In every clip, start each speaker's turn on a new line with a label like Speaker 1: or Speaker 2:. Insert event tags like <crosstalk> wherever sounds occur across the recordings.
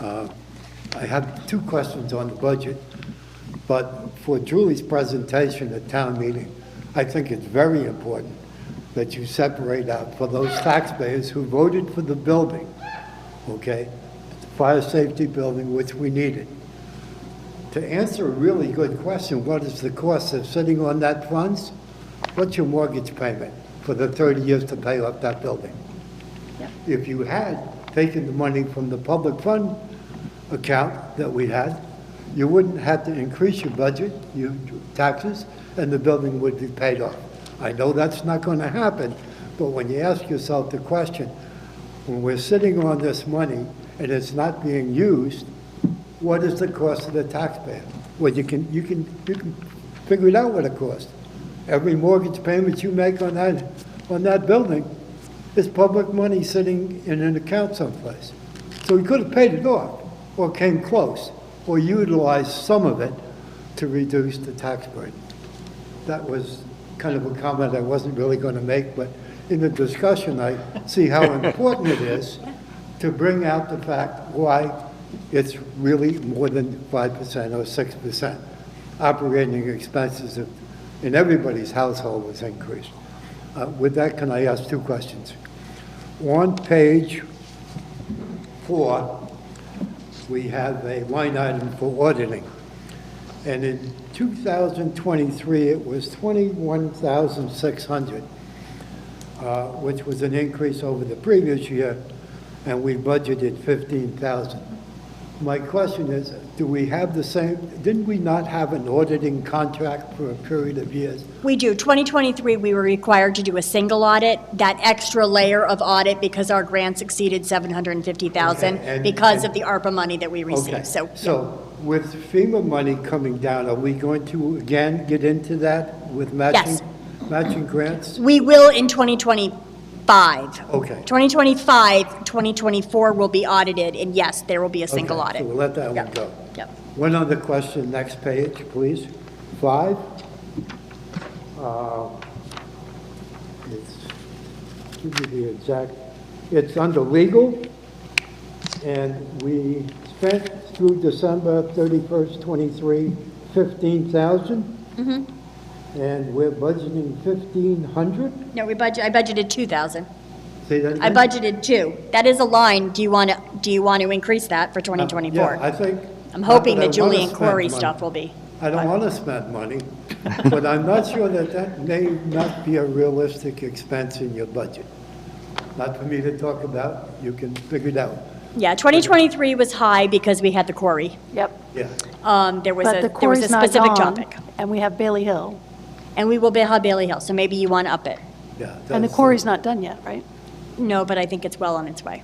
Speaker 1: Uh, I have two questions on the budget, but for Julie's presentation at town meeting, I think it's very important that you separate out for those taxpayers who voted for the building, okay? the Fire safety building, which we needed. To answer a really good question, what is the cost of sitting on that funds? What's your mortgage payment for the 30 years to pay off that building? If you had taken the money from the public fund account that we had, you wouldn't have to increase your budget, your taxes, and the building would be paid off. I know that's not going to happen, but when you ask yourself the question, when we're sitting on this money and it's not being used, what is the cost to the taxpayer? Well, you can, you can, you can figure it out what it costs. Every mortgage payment you make on that, on that building is public money sitting in an account someplace. So he could have paid it off, or came close, or utilized some of it to reduce the tax burden. That was kind of a comment I wasn't really going to make, but in the discussion, I see how important it is to bring out the fact why it's really more than 5% or 6%. Operating expenses of- in everybody's household was increased. Uh, With that, can I ask two questions? On page four, we have a line item for auditing. And in 2023, it was 21,600, uh, which was an increase over the previous year, and we budgeted 15,000. My question is, do we have the same, didn't we not have an auditing contract for a period of years?
Speaker 2: We do. 2023, we were required to do a single audit, that extra layer of audit because our grants exceeded 750,000
Speaker 1: Okay, and-
Speaker 2: because
Speaker 1: and-
Speaker 2: of the ARPA money that we
Speaker 1: Okay.
Speaker 2: received. So
Speaker 1: So with FEMA money coming down, are we going to again get into that with matching?
Speaker 2: Yes.
Speaker 1: Matching grants?
Speaker 2: we will in 2025.
Speaker 1: Okay.
Speaker 2: 2025, 2024 will be audited, and yes, there will be a single
Speaker 1: Okay,
Speaker 2: audit.
Speaker 1: So we'll let that one
Speaker 2: Yep.
Speaker 1: go.
Speaker 2: Yep.
Speaker 1: One other question, next page, please. Five. Uh, It's, give me the exact, it's under legal, and we spent through December 31st, 23, 15,000.
Speaker 2: Mm-hmm.
Speaker 1: And we're budgeting 1,500?
Speaker 2: No, we budget, I budgeted 2,000.
Speaker 1: Say that again?
Speaker 2: I budgeted two. That is a line. Do you want to, do you want to increase that for
Speaker 1: Uh,
Speaker 2: 2024?
Speaker 1: Yeah, I think.
Speaker 2: I'm hoping
Speaker 1: not I
Speaker 2: the Julie
Speaker 1: wanna
Speaker 2: and Corey
Speaker 1: spend money.
Speaker 2: stuff will be.
Speaker 1: I don't want to spend money, but I'm not sure that that may not be a realistic expense in your budget. Not for me to talk about, you can figure it out,
Speaker 2: Yeah, 2023 was high because we had the quarry.
Speaker 3: Yep.
Speaker 1: yeah.
Speaker 2: Um, There was
Speaker 3: But
Speaker 2: a,
Speaker 3: the
Speaker 2: there was a
Speaker 3: quarry's not
Speaker 2: specific
Speaker 3: gone,
Speaker 2: topic.
Speaker 3: and we have Bailey Hill.
Speaker 2: And we will bid on Bailey Hill, so maybe you want to up it.
Speaker 1: yeah,
Speaker 3: And the
Speaker 1: that's-
Speaker 3: quarry's not done yet, right?
Speaker 2: No, but I think it's well on its way.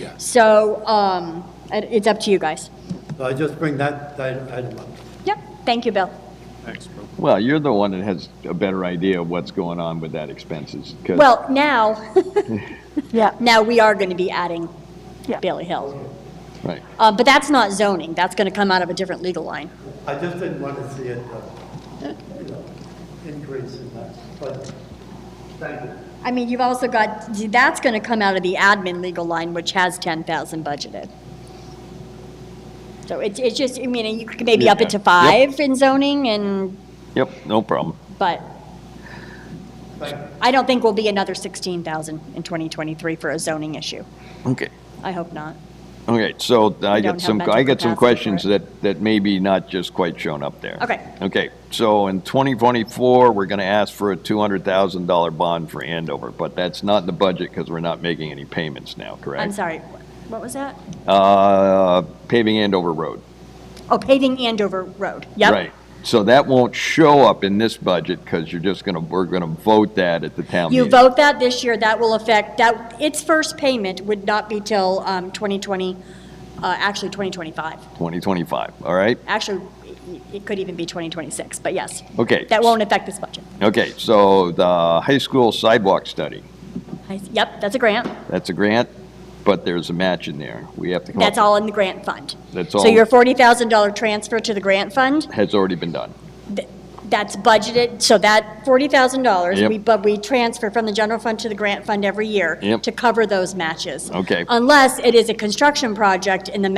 Speaker 1: Yeah.
Speaker 2: So um, it- it's up to you guys.
Speaker 1: So I just bring that item item up.
Speaker 2: Yep, thank you, Bill.
Speaker 4: Well, you're the one that has a better idea of what's going on with that expenses. 'cause-
Speaker 2: Well, now, <laughs>
Speaker 3: Yeah.
Speaker 2: now we are going to be adding
Speaker 3: Yeah.
Speaker 2: Bailey Hill.
Speaker 4: Right.
Speaker 2: Uh, But that's not zoning, that's going to come out of a different legal line.
Speaker 1: I just didn't want to see it, uh, you know, increase in that, but, thank you.
Speaker 2: I mean, you've also got, that's going to come out of the admin legal line, which has 10,000 budgeted. So it's, it's just, I mean, you could maybe up it to
Speaker 4: Yeah. Yep.
Speaker 2: five in zoning and,
Speaker 4: Yep, no problem.
Speaker 2: but I don't think we'll be another 16,000 in 2023 for a zoning issue.
Speaker 4: Okay.
Speaker 2: I hope not.
Speaker 4: Okay, so I
Speaker 2: don't have
Speaker 4: got some,
Speaker 2: mental
Speaker 4: I got
Speaker 2: capacity
Speaker 4: some
Speaker 2: for
Speaker 4: questions
Speaker 2: it.
Speaker 4: that, that maybe not just quite shown up there.
Speaker 2: Okay.
Speaker 4: Okay, so in 2024, we're going to ask for a $200,000 bond for Andover, but that's not in the budget because we're not making any payments now, correct?
Speaker 2: I'm sorry, what was that?
Speaker 4: Uh, paving Andover Road.
Speaker 2: Oh, paving Andover Road, yep.
Speaker 4: Right. So that won't show up in this budget because you're just going to, we're going to vote that at the town meeting.
Speaker 2: You vote that this year, that will affect, that, its first payment would not be till um, 2020, uh, actually 2025.
Speaker 4: 2025, all right?
Speaker 2: Actually, it- it could even be 2026, but yes.
Speaker 4: Okay.
Speaker 2: That won't affect this budget.
Speaker 4: Okay, so the high school sidewalk study,
Speaker 2: I- Yep, that's a grant.
Speaker 4: that's a grant, but there's a match in there. We have to come up.
Speaker 2: That's all in the grant fund.
Speaker 4: That's
Speaker 2: So
Speaker 4: all-
Speaker 2: your $40,000 transfer to the grant fund,
Speaker 4: Has already been done.
Speaker 2: th- that's budgeted, so that $40,000,
Speaker 4: Yep.
Speaker 2: we, but we transfer from the general fund to the grant fund every year
Speaker 4: Yep.
Speaker 2: to cover those matches.
Speaker 4: Okay.
Speaker 2: Unless it is a construction project and the